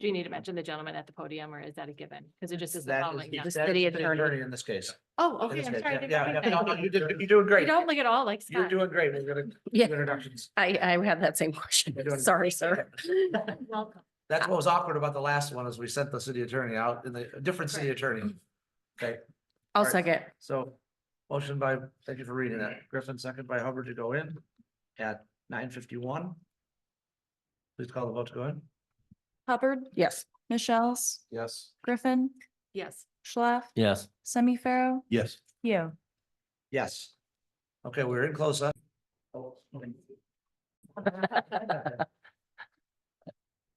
Do you need to mention the gentleman at the podium or is that a given? Because it just isn't That is following. down. that is city attorney. In this case. Oh, In okay, this I'm case, sorry. I yeah, didn't Yeah, yeah, recognize no, no, you. you did, you're doing You great. don't look at all like You're Scott. doing great. We're gonna, Yeah. introductions. I, I had that same question. You're doing- Sorry, sir. Welcome. That's what was awkward about the last one is we sent the city attorney out in the, a different city Correct. attorney. Okay, I'll Alright. second. so motion by, thank you for reading that. Griffin, second by Hubbard to go in at nine fifty-one. Please call the vote to go in. Hubbard, Yes. Michelle's, Yes. Griffin, Yes, Schlaf, Yes. Semi Pharaoh, Yes. you. Yes. Okay, we're in close up.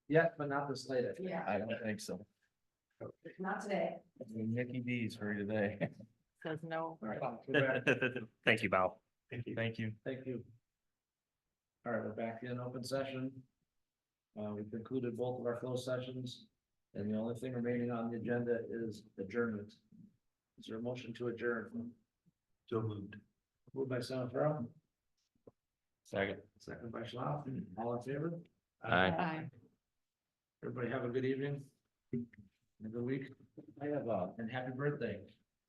Yeah, but not this late. Yeah. I don't think so. not today. Nikki D's for today. Says no. All right. Thank you, Val. Thank you. Thank you. Thank you. All right, we're back in open session. Uh, we concluded both of our closed sessions, and the only thing remaining on the agenda is adjournment. Is there a motion to adjourn? So moved. Moved by Senator Farrell, Second. second by Schlaf, all in favor? Aye. Aye. Everybody have a good evening. and Good week. I have, uh, and happy birthday.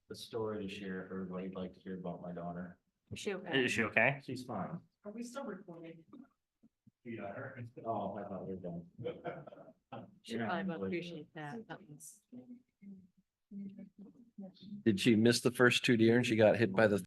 The story to share, if everybody'd like to hear about my daughter. Shoot. Is she okay? She's fine. Are we still recording? Yeah. Oh, I thought we were done. She probably will appreciate that. That was- Did she miss the first two deer and she got hit by the